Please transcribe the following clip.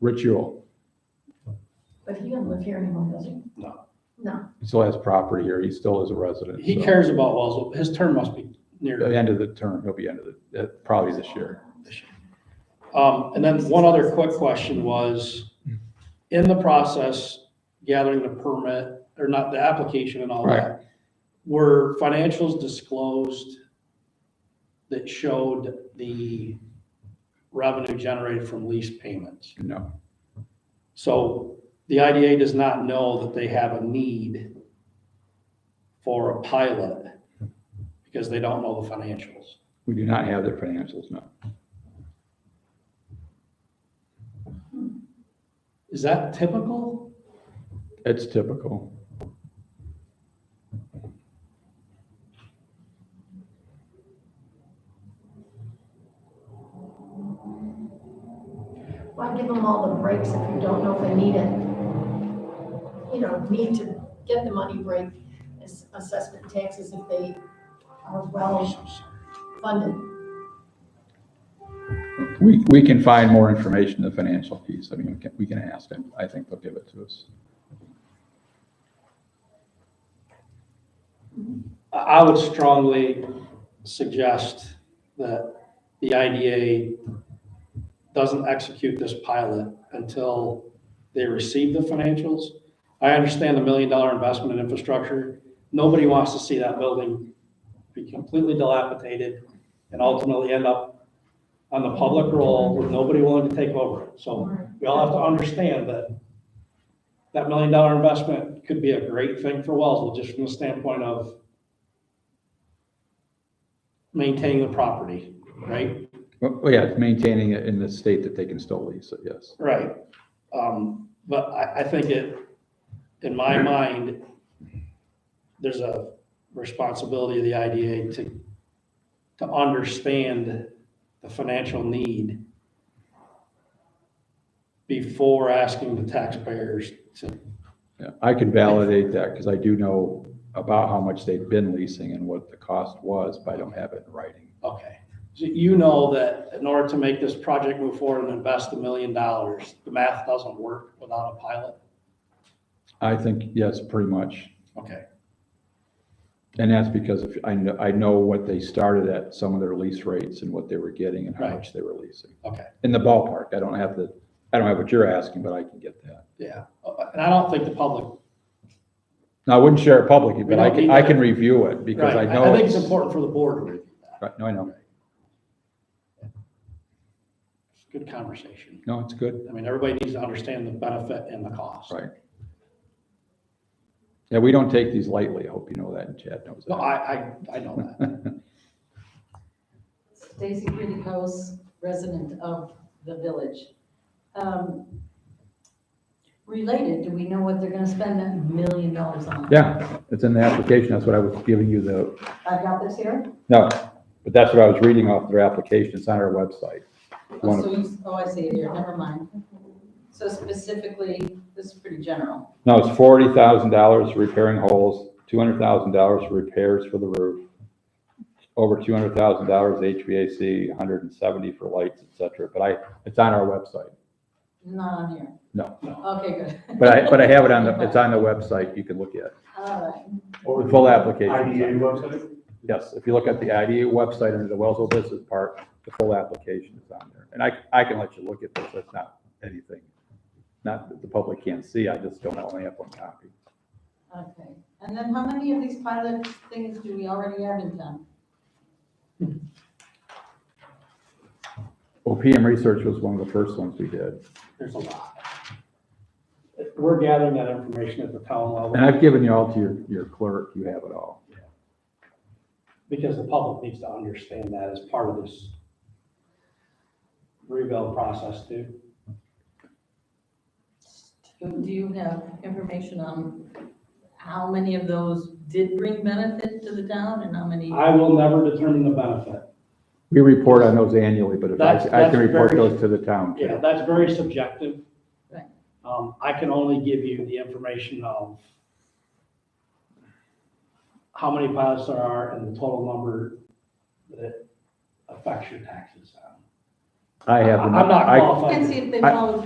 Rich Yule, But he doesn't live here anymore, does he? No. No. he still has property here, he still is a resident. He so- cares about Wellsville. His term must be The near. end of the term, he'll be end of the, uh, probably this year. Um, and then one other quick question was, in the process, gathering the permit, or not the application and all that, were financials disclosed that showed the revenue generated from lease payments? No, So the IDA does not know that they have a need for a pilot because they don't know the financials. we do not have their financials, no. Is that typical? It's typical. Why give them all the breaks if you don't know if they need it? You know, need to get the money break, as assessment taxes if they are well funded. We, we can find more information, in the financial piece, I mean, we can, we can ask them, I think they'll give it to us. I- I would strongly suggest that the IDA doesn't execute this pilot until they receive the financials. I understand the million dollar investment in infrastructure. Nobody wants to see that building be completely dilapidated and ultimately end up on the public roll with nobody willing to take over it. So we all have to understand that that million dollar investment could be a great thing for Wellsville, just from the standpoint of maintaining the property, right? Well, well, yeah, maintaining it in the state that they can still lease it, yes. Right. Um, but I, I think it, in my mind, there's a responsibility of the IDA to, to understand the financial need before asking the taxpayers to Yeah, I can validate that, because I do know about how much they've been leasing and what the cost was, but I don't have it in writing. Okay, so you know that in order to make this project move forward and invest a million dollars, the math doesn't work without a pilot? I think, yes, pretty much. Okay, And that's because if, I know, I know what they started at, some of their lease rates and what they were getting and how Right. much they were leasing. okay, In the ballpark, I don't have the, I don't have what you're asking, but I can get that. yeah, Uh, and I don't think the public. Now, I wouldn't share it publicly, We but don't I can, need I that. can review it because I Right, know. I think it's important for the board to review that, Right, no, I know. it's a good conversation. No, it's good, I mean, everybody needs to understand the benefit and the cost. right. Yeah, we don't take these lightly. I hope you know that and Chad knows No, that. I, I, I know that, Stacy Criticos, resident of the village. Um, Related, do we know what they're gonna spend that million dollars on? Yeah, it's in the application. That's what I was giving you the, I've got this here? no, but that's what I was reading off their application. It's on our website. Oh, One so of- you, oh, I see it here, never mind. So specifically, this is pretty general. No, it's forty thousand dollars repairing holes, two hundred thousand dollars for repairs for the roof, over two hundred thousand dollars HVAC, $170 for lights, et cetera. But I, it's on our website. Not on here. No. Okay, good. But I, but I have it on the, it's on the website. You can look at it. All right. The full application. IDA website? Yes, if you look at the IDA website under the Wellsville Business Park, the full application is on there. And I, I can let you look at this, that's not anything, not that the public can't see, I just don't only have one copy. Okay, and then how many of these pilot things do we already have in town? OPM Research was one of the first ones we did, there's a lot. We're gathering that information at the town and level, I've given you all to your, your clerk, you have it all. because the public needs to understand that as part of this rebuild process too. Do you have information on how many of those did bring benefit to the town and how many? I will never determine the benefit. We report on those annually, but if That's- I, I that's can report very- those to the town Yeah, too. that's very subjective. Right. Um, I can only give you the information of how many pilots there are and the total number that affects your taxes. I have, the I'm not I- qualified. And see if they I- follow